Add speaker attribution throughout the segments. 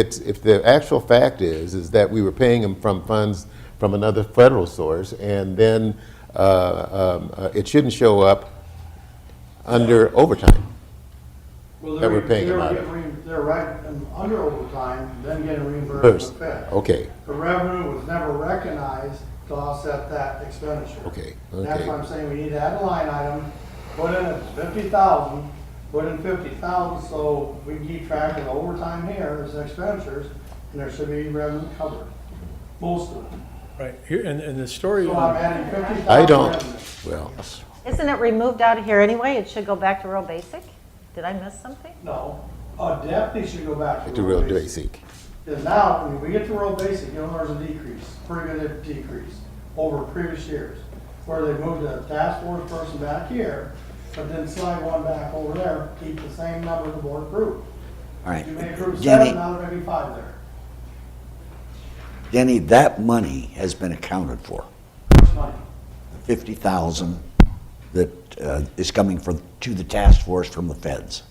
Speaker 1: It's, if the actual fact is, is that we were paying them from funds from another federal source, and then uh, um, uh, it shouldn't show up under overtime.
Speaker 2: Well,
Speaker 1: that
Speaker 2: they're
Speaker 1: we're paying
Speaker 2: they're
Speaker 1: them out
Speaker 2: getting reim- They're right, and under overtime, then getting reimbursed
Speaker 1: First, oh.
Speaker 2: from Fed.
Speaker 1: okay,
Speaker 2: The revenue was never recognized to offset that expenditure.
Speaker 1: Okay,
Speaker 2: That's
Speaker 1: okay.
Speaker 2: why I'm saying we need to add a line item, put in fifty thousand, put in fifty thousand, so we can keep track of the overtime here as expenditures, and there should be revenue covered, most of it.
Speaker 3: Right, here, and, and the story,
Speaker 2: So I'm adding fifty thousand.
Speaker 1: I don't, well,
Speaker 4: Isn't it removed out of here anyway? It should go back to real basic? Did I miss something?
Speaker 2: No, a deputy should go back to.
Speaker 1: to
Speaker 2: rural
Speaker 1: real basic.
Speaker 2: Because now, when we get to rural basic, you know, there's a decrease, pretty good decrease over previous years. Where they moved the task force person back here, but then slide one back over there, keep the same number the board approved.
Speaker 5: All right.
Speaker 2: You may approve seven,
Speaker 5: Denny,
Speaker 2: now there may be five there.
Speaker 5: Denny, that money has been accounted for.
Speaker 2: Which money?
Speaker 5: The 50,000 that uh, is coming from, to the task force from the feds.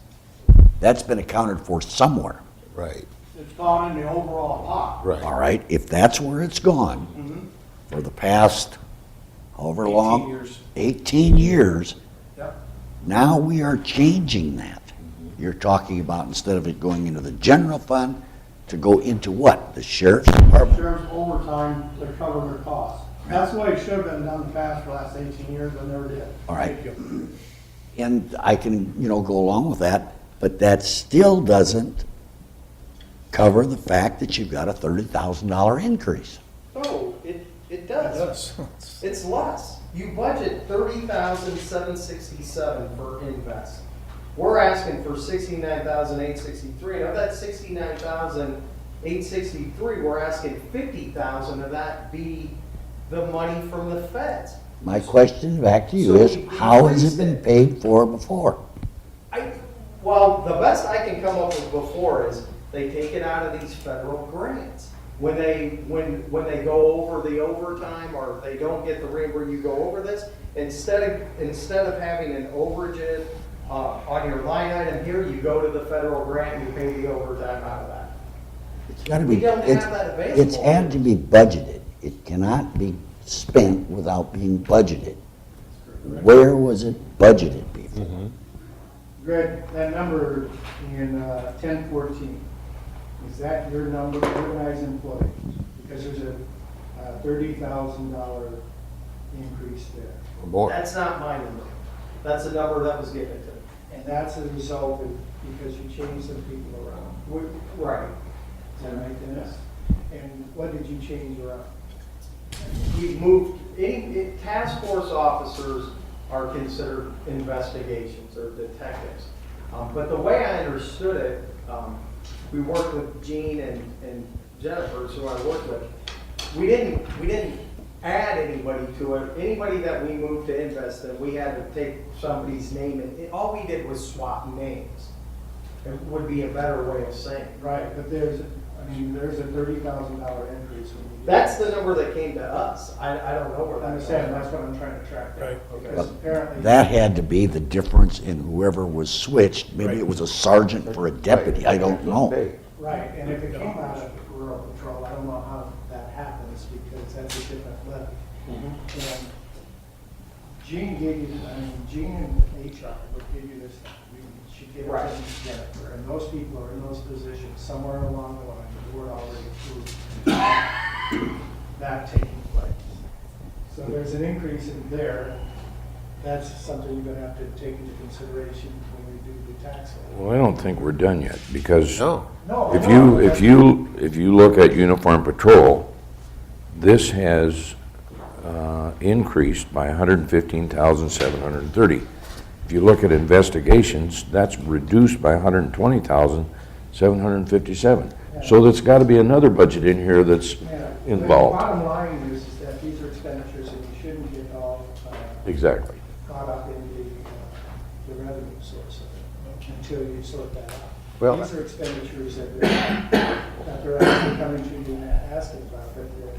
Speaker 5: That's been accounted for somewhere,
Speaker 1: Right,
Speaker 2: It's gone in the overall pot.
Speaker 5: all
Speaker 1: right.
Speaker 5: right? If that's where it's gone for the past however long.
Speaker 3: 18 years.
Speaker 5: 18 years,
Speaker 2: Yep.
Speaker 5: now we are changing that. You're talking about instead of it going into the general fund, to go into what? The sheriff's department?
Speaker 2: Sheriff's overtime, they're covering their costs. That's the way it should have been done fast for the last eighteen years, but never did.
Speaker 5: All right. And I can, you know, go along with that, but that still doesn't cover the fact that you've got a thirty thousand dollar increase.
Speaker 6: No, it, it does. It's less. You budget thirty thousand seven sixty-seven for invest. We're asking for sixty-nine thousand eight sixty-three, and of that sixty-nine thousand eight sixty-three, we're asking fifty thousand of that be the money from the feds.
Speaker 5: My question back to you
Speaker 6: So
Speaker 5: is,
Speaker 6: we
Speaker 5: how has it
Speaker 6: increased
Speaker 5: been
Speaker 6: it.
Speaker 5: paid for before?
Speaker 6: I, well, the best I can come up with before is they take it out of these federal grants. When they, when, when they go over the overtime or if they don't get the rate where you go over this, instead of, instead of having an overage uh, on your line item here, you go to the federal grant and you pay the overtime out of that.
Speaker 5: It's gotta
Speaker 6: We
Speaker 5: be,
Speaker 6: don't have
Speaker 5: it's,
Speaker 6: that available.
Speaker 5: it's had to be budgeted. It cannot be spent without being budgeted. Where was it budgeted before?
Speaker 2: Greg, that number in uh, ten fourteen, is that your number, organized employee? Because there's a uh, thirty thousand dollar increase there.
Speaker 1: or more.
Speaker 6: That's not my number. That's the number that was given to me.
Speaker 2: And that's a result of, because you changed some people around.
Speaker 6: We- Right.
Speaker 2: Is that right, Dennis? And what did you change around?
Speaker 6: we moved, any, it- task force officers are considered investigations or detectives. Um, But the way I understood it, um, we worked with Gene and and Jennifer, who I worked with. We didn't, we didn't add anybody to it. Anybody that we moved to invest in, we had to take somebody's name and, it- all we did was swap names. It would be a better way of saying. it.
Speaker 2: Right, but there's, I mean, there's a thirty thousand dollar increase when you. do-
Speaker 6: That's the number that came to us. I, I don't know where
Speaker 2: I
Speaker 6: that.
Speaker 2: Understand, that's what I'm trying to track. down,
Speaker 3: Right.
Speaker 2: Because apparently.
Speaker 5: That had to be the difference in whoever was switched. Maybe it
Speaker 3: Right.
Speaker 5: was a sergeant for a deputy, I don't know.
Speaker 2: Right, and if it came out of rural patrol, I don't know how that happens, because that's a different level. And Jean gave you, I mean, Jean and HR would give you this, you- she gave it to
Speaker 6: Right.
Speaker 2: Jennifer, and those people are in those positions somewhere along the line, the board already approved that taking place. So there's an increase in there, that's something you're gonna have to take into consideration when we do the tax. law.
Speaker 7: Well, I don't think we're done yet, because
Speaker 1: No,
Speaker 2: No,
Speaker 7: if
Speaker 2: no,
Speaker 7: you,
Speaker 2: that's-
Speaker 7: if you, if you look at uniform patrol, this has uh, increased by 115,730. If you look at investigations, that's reduced by 120,757. So there's got to be another budget in here that's
Speaker 2: Yeah. The
Speaker 7: involved.
Speaker 2: Bottom line is, is that these are expenditures and you shouldn't get all uh,
Speaker 7: Exactly.
Speaker 2: caught up in the, uh, the revenue source of it until you sort that
Speaker 1: Well-
Speaker 2: out. These are expenditures that they're, that they're actually coming to you and asking about, but there,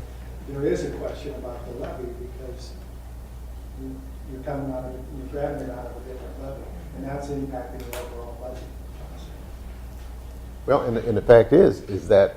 Speaker 2: there is a question about the levy because you- you're coming out of, you're grabbing it out of a different levy, and that's impacting the overall budget.
Speaker 1: Well, and, the- and the fact is, is that